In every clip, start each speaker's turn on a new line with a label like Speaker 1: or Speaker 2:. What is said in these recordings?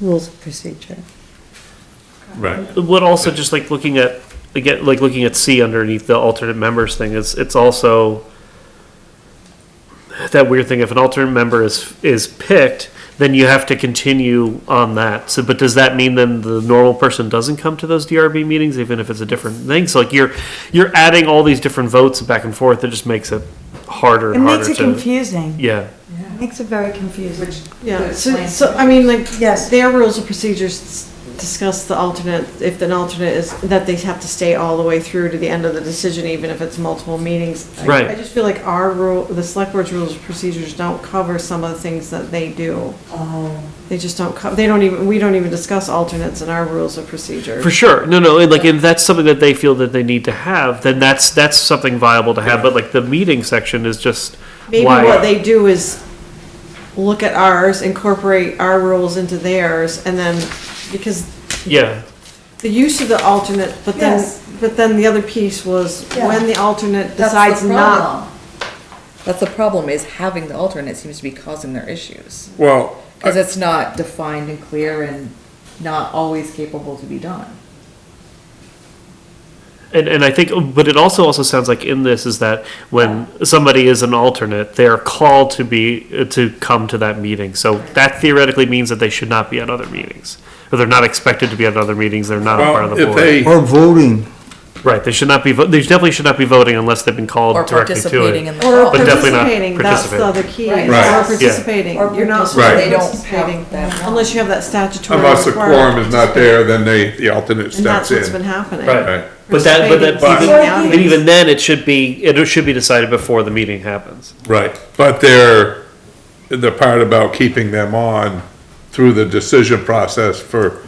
Speaker 1: rules of procedure.
Speaker 2: Right.
Speaker 3: What also, just like looking at, again, like looking at C underneath the alternate members thing, it's, it's also that weird thing, if an alternate member is, is picked, then you have to continue on that. So, but does that mean then the normal person doesn't come to those DRB meetings, even if it's a different thing? So like you're, you're adding all these different votes back and forth, it just makes it harder
Speaker 1: It
Speaker 3: and harder
Speaker 1: makes
Speaker 3: to.
Speaker 1: it confusing.
Speaker 3: Yeah,
Speaker 1: It Makes it very confusing.
Speaker 4: Yeah, so, so, I mean, like,
Speaker 1: Yes.
Speaker 4: their rules of procedures s- discuss the alternate, if an alternate is, that they have to stay all the way through to the end of the decision, even if it's multiple meetings. I-
Speaker 3: Right.
Speaker 4: I just feel like our rule, the select board's rules of procedures don't cover some of the things that they do. They just don't co, they don't even, we don't even discuss alternates in our rules of procedure.
Speaker 3: for sure. No, no, and like if that's something that they feel that they need to have, then that's, that's something viable to have, but like the meeting section is just
Speaker 4: Maybe
Speaker 3: why-
Speaker 4: what they do is look at ours, incorporate our rules into theirs, and then, because
Speaker 3: Yeah,
Speaker 4: the use of the alternate, but then,
Speaker 1: Yes.
Speaker 4: but then the other piece was
Speaker 1: Yeah.
Speaker 4: when the alternate
Speaker 5: That's the
Speaker 4: decides not.
Speaker 5: That's the problem, is having the alternate seems to be causing their issues.
Speaker 2: Well,
Speaker 5: Because it's not defined and clear and not always capable to be done.
Speaker 3: and and I think, but it also also sounds like in this is that when somebody is an alternate, they are called to be to come to that meeting. So that theoretically means that they should not be at other meetings, or they're not expected to be at other meetings. They're not a part
Speaker 2: well,
Speaker 3: of the
Speaker 2: if
Speaker 3: board.
Speaker 2: they,
Speaker 6: Or voting.
Speaker 3: right? They should not be. Vo- they definitely should not be voting unless they've been called
Speaker 5: Or
Speaker 3: directly to it.
Speaker 5: participating in the.
Speaker 4: Or
Speaker 3: But definitely not
Speaker 4: participating, that's the other key,
Speaker 5: Right.
Speaker 4: is
Speaker 2: Right.
Speaker 4: or
Speaker 2: Yeah.
Speaker 4: participating,
Speaker 5: Or
Speaker 4: you're not
Speaker 5: participating.
Speaker 4: supposed to
Speaker 5: They don't
Speaker 4: participating,
Speaker 5: have that.
Speaker 4: unless you have that statutory
Speaker 2: unless the quorum
Speaker 4: requirement.
Speaker 2: is not there, then they, the alternate
Speaker 4: And that's
Speaker 2: steps
Speaker 4: what's been
Speaker 2: in.
Speaker 4: happening.
Speaker 2: Right.
Speaker 3: But that, but that,
Speaker 2: Participating,
Speaker 3: even-
Speaker 4: but-
Speaker 3: but even then, it should be it should be decided before the meeting happens.
Speaker 2: Right, but they're, the part about keeping them on through the decision process for,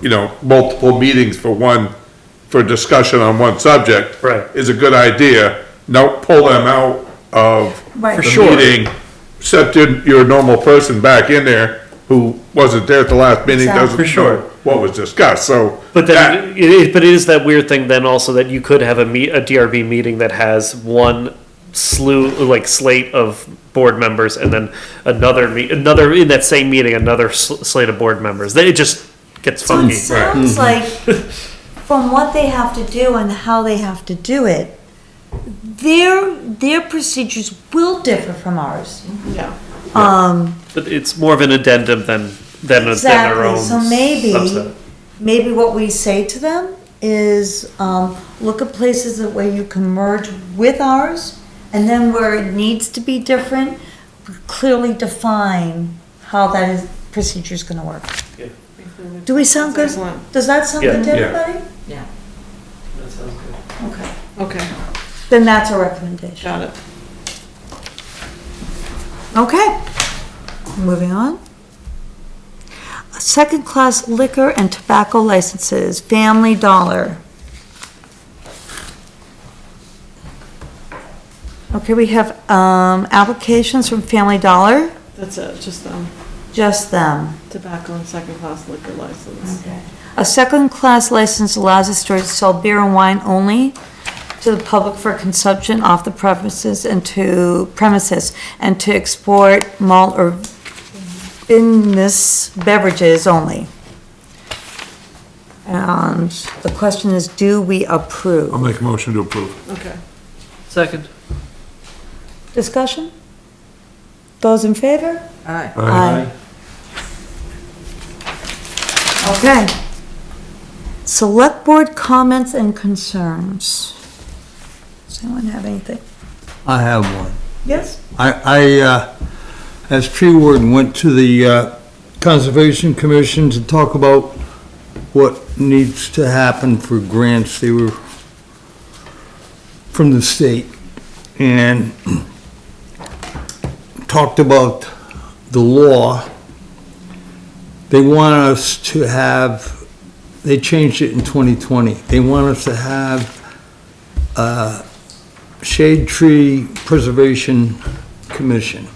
Speaker 2: you know, multiple meetings for one, for discussion on one subject.
Speaker 3: Right.
Speaker 2: Is a good idea. Now pull them out of
Speaker 1: Right. For
Speaker 3: sure.
Speaker 2: the meeting. Set your, your normal person back in there who wasn't there at the last meeting, doesn't
Speaker 3: For sure.
Speaker 2: know what was discussed, so.
Speaker 3: But
Speaker 2: that-
Speaker 3: then, it is, but it is that weird thing then also that you could have a meet, a DRB meeting that has one slew, like slate of board members and then another meet, another, in that same meeting, another sl- slate of board members. Then it just gets
Speaker 7: So it
Speaker 3: funky.
Speaker 7: sounds like,
Speaker 3: Mm-hmm.
Speaker 7: from what they have to do and how they have to do it, their, their procedures will differ from ours.
Speaker 4: Yeah.
Speaker 7: Um,
Speaker 3: But it's more of an addendum than, than, a- than their own
Speaker 7: exactly, so maybe,
Speaker 3: subset.
Speaker 7: maybe what we say to them is, um, look at places that where you can merge with ours, and then where it needs to be different, clearly define how that is, procedure's gonna work. Do we sound good?
Speaker 4: Excellent.
Speaker 7: Does that sound good to
Speaker 2: Yeah. Yeah.
Speaker 7: everybody?
Speaker 5: Yeah.
Speaker 7: Okay,
Speaker 4: Okay,
Speaker 7: then that's our recommendation.
Speaker 4: got it.
Speaker 7: Okay, moving on. Second-class liquor and tobacco licenses, Family Dollar. Okay, we have, um, applications from Family Dollar,
Speaker 4: That's it, just, um,
Speaker 7: just them.
Speaker 4: tobacco and second-class liquor license.
Speaker 7: A second-class license allows a store to sell beer and wine only to the public for consumption off the premises and to premises, and to export malt or vinous beverages only. And the question is, do we
Speaker 2: I'll
Speaker 7: approve?
Speaker 2: make a motion to approve.
Speaker 4: Okay.
Speaker 3: Second.
Speaker 7: Discussion? Those in favor?
Speaker 5: Alright,
Speaker 7: Aye. Okay. Select Board comments and concerns. Does anyone have anything?
Speaker 6: I have one.
Speaker 7: Yes.
Speaker 6: I, I, uh, as tree warden, went to the, uh, Conservation Commission to talk about what needs to happen for grants. They were from the state and talked about the law. They want us to have, they changed it in 2020. They want us to have, uh, Shade Tree Preservation Commission.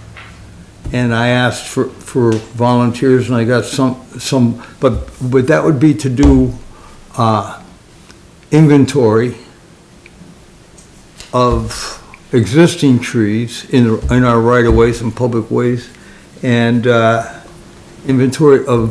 Speaker 6: And I asked for, for volunteers and I got some, some, but, but that would be to do, uh, inventory of existing trees in, in our right of ways and public ways and, uh, inventory of